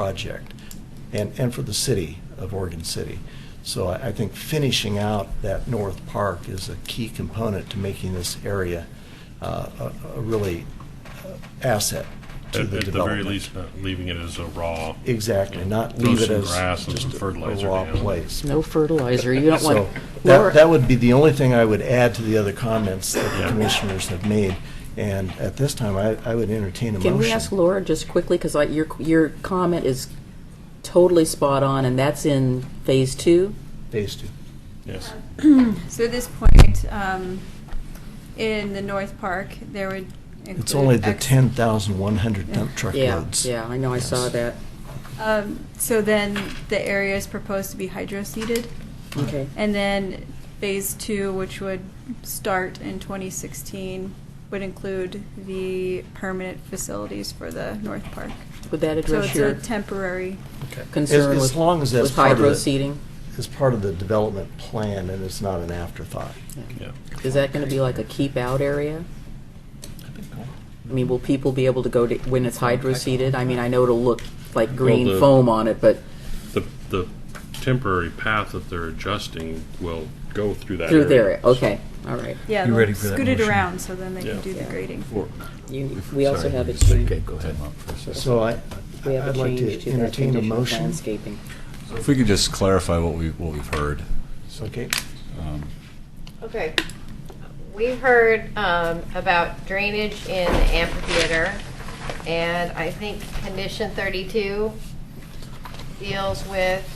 project and, and for the city of Oregon City. So I, I think finishing out that North Park is a key component to making this area uh, a, a really uh, asset to At the at the very development. least, not leaving it as a raw. Exactly, not Throw leave it some as grass and just some a- fertilizer a raw down. place. No fertilizer, you don't want. So that, Laura- that would be the only thing I would add to the other comments that the Yeah. commissioners have made. And at this time, I, I would entertain a motion. Can we ask Laura just quickly, because like your, your comment is totally spot on, and that's in phase two? Phase two. Yes. So at this point, um, in the North Park, there would include. It's only the X- 10,100 dump truck Yeah, loads. yeah, I know, I saw Yes. that. Um, so then the area is proposed to be hydroseeded, Okay. and then phase two, which would start in 2016, would include the permanent facilities for the North Park. Would that So address it's your a temporary. Okay. As- concern As with long as that's with part of hydro the, seeding? as part of the development plan and it's not an afterthought. Yeah. Is that going to be like a keep-out area? I mean, will people be able to go to, when it's hydro seeded? I mean, I know it'll look like green the- foam on it, but The, the temporary path that they're adjusting will go through that through area. there, okay, all right. Yeah, You ready they'll for that scoot it motion? around so then they can Yeah. do the grading. Or- You- We also Sorry. have a change. Okay, go ahead. uh, So I, We have a I'd like change to to that entertain a condition of motion. landscaping. So If we could just clarify what we, what we've heard. Okay, Um, Okay. We heard um, about drainage in the amphitheater, and I think condition 32 deals with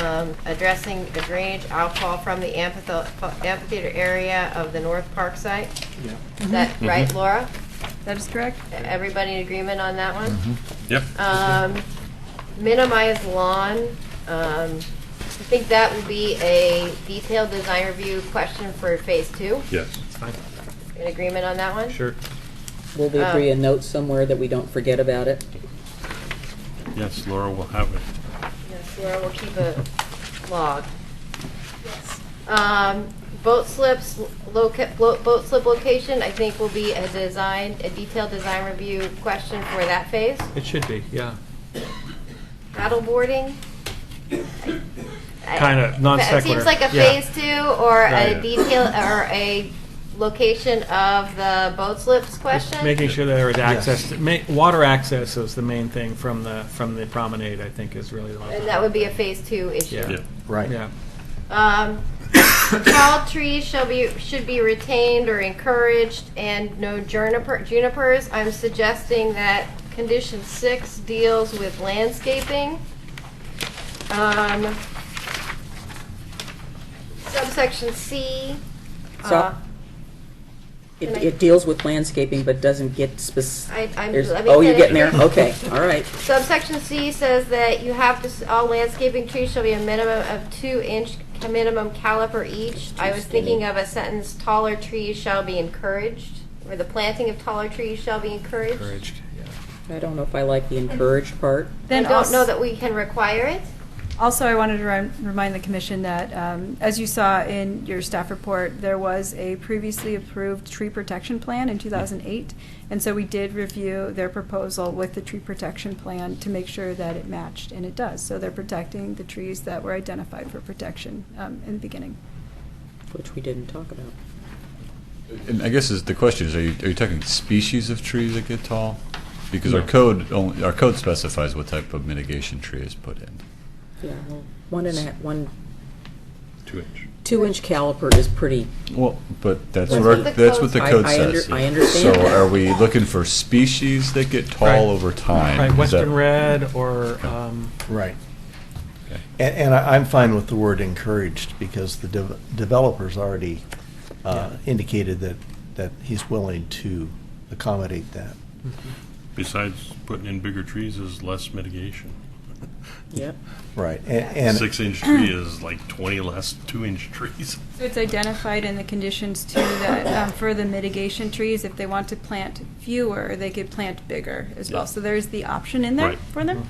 um, addressing the drainage outfall from the amphithe- amphitheater area of the North Park site. yeah. Is that right, Laura? That is correct? Everybody in agreement on that one? Mm-hmm. Yeah. Um, minimize lawn, um, I think that would be a detailed design review question for phase two. Yes. In agreement on that one? Sure. Will there be a Um, note somewhere that we don't forget about it? Yes, Laura will have it. Yes, Laura will keep a log. Um, boat slips, loca, lo- boat slip location, I think will be a design, a detailed design review question for that phase. It should be, yeah. Paddle boarding? I- Kinda, I- non It sequitur, seems like a yeah. phase two or a Right. detail, or a location of the boat slips question? Making sure that there is access, Yes. to- ma- water access is the main thing from the, from the promenade, I think, is really the most. And that would be a phase two issue. Yeah. Yeah. Right. Yeah, Um, tall trees shall be, should be retained or encouraged, and no juniper, junipers. I'm suggesting that condition six deals with landscaping. Um, subsection C. So- uh, It, Can I- it deals with landscaping, but doesn't get I- specific. I'm- let me Oh, you're finish. getting there? Okay, all right. Subsection C says that you have to, s- all landscaping trees shall be a minimum of two inch, a minimum caliper each. I was thinking of a sentence, taller trees shall be encouraged, or the planting of taller trees shall be encouraged. encouraged, yeah. I don't know if I like the encouraged part. I Then don't know als- that we can require it. Also, I wanted to rem- remind the commission that, um, as you saw in your staff report, there was a previously approved tree protection plan in 2008. And so we did review their proposal with the tree protection plan to make sure that it matched, and it does. So they're protecting the trees that were identified for protection um, in the beginning. Which we didn't talk about. And I guess is, the question is, are you, are you talking species of trees that get tall? Because our No. code only, our code specifies what type of mitigation tree is put in. Yeah, well, one and a half, one, Two inch. two-inch caliper is pretty, Well, but that's That's what our, what the that's code- what the I- code I under- says. I understand So that. are we looking for species that get Right. tall over time? Right, Is western that- red or, um, Right. Okay. And, and I- I'm fine with the word encouraged, because the dev- developer's already uh, indicated that, that he's willing to accommodate that. Besides putting in bigger trees is less mitigation. yep. Right, a- and. Six inch tree is like twenty less two inch trees. So it's identified in the conditions too that um, for the mitigation trees, if they want to plant fewer, they could plant bigger as Yeah. well. So there's the option in there Right. Mm-hmm. for them.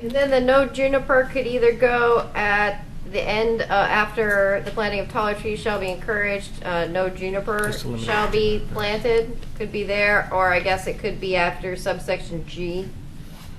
And then the no juniper could either go at the end, uh, after the planting of taller trees shall be encouraged, uh, no juniper Just eliminate shall be juniper. planted, could be there, or I guess it could be after subsection G.